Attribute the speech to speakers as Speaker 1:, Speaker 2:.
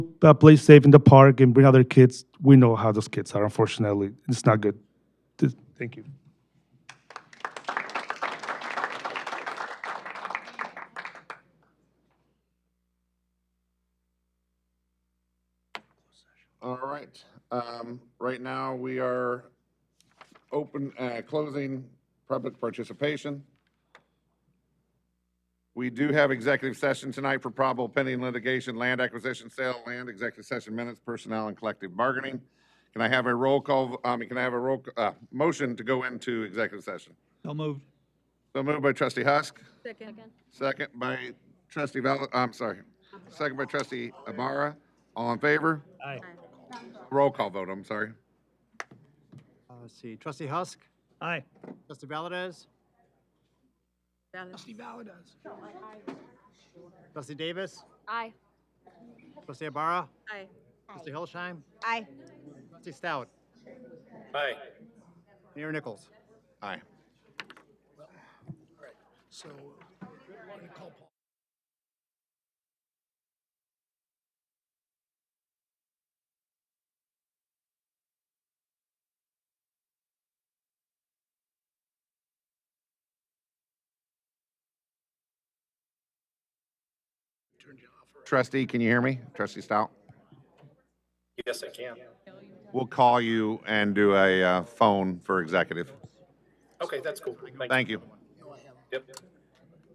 Speaker 1: uh, play safe in the park and bring other kids. We know how those kids are, unfortunately. It's not good. Th- Thank you.
Speaker 2: All right. Um, Right now, we are open, uh, closing public participation. We do have executive session tonight for probable pending litigation, land acquisition, sale, of land, executive session minutes, personnel, and collective bargaining. Can I have a roll call, I mean, can I have a roll, uh, motion to go into executive session?
Speaker 3: So moved.
Speaker 2: So moved by trustee Husk,
Speaker 4: Second.
Speaker 2: second by trustee Val, I'm sorry, second by trustee Ibarra. All in favor?
Speaker 3: Aye.
Speaker 2: Roll call vote, I'm sorry.
Speaker 5: Uh, Let's see, trustee Husk,
Speaker 3: Aye.
Speaker 5: trustee Valdez,
Speaker 4: Valid.
Speaker 5: trustee Davis,
Speaker 4: Aye.
Speaker 5: trustee Ibarra,
Speaker 4: Aye.
Speaker 5: trustee Hillesheim,
Speaker 4: Aye.
Speaker 5: trustee Stout. Aye. Mayor Nichols.
Speaker 2: Aye. Trustee, can you hear me? Trustee Stout?
Speaker 6: Yes, I can.
Speaker 2: We'll call you and do a uh, phone for executive.
Speaker 6: Okay, that's cool. Thank you.
Speaker 2: Thank you.
Speaker 6: Yep.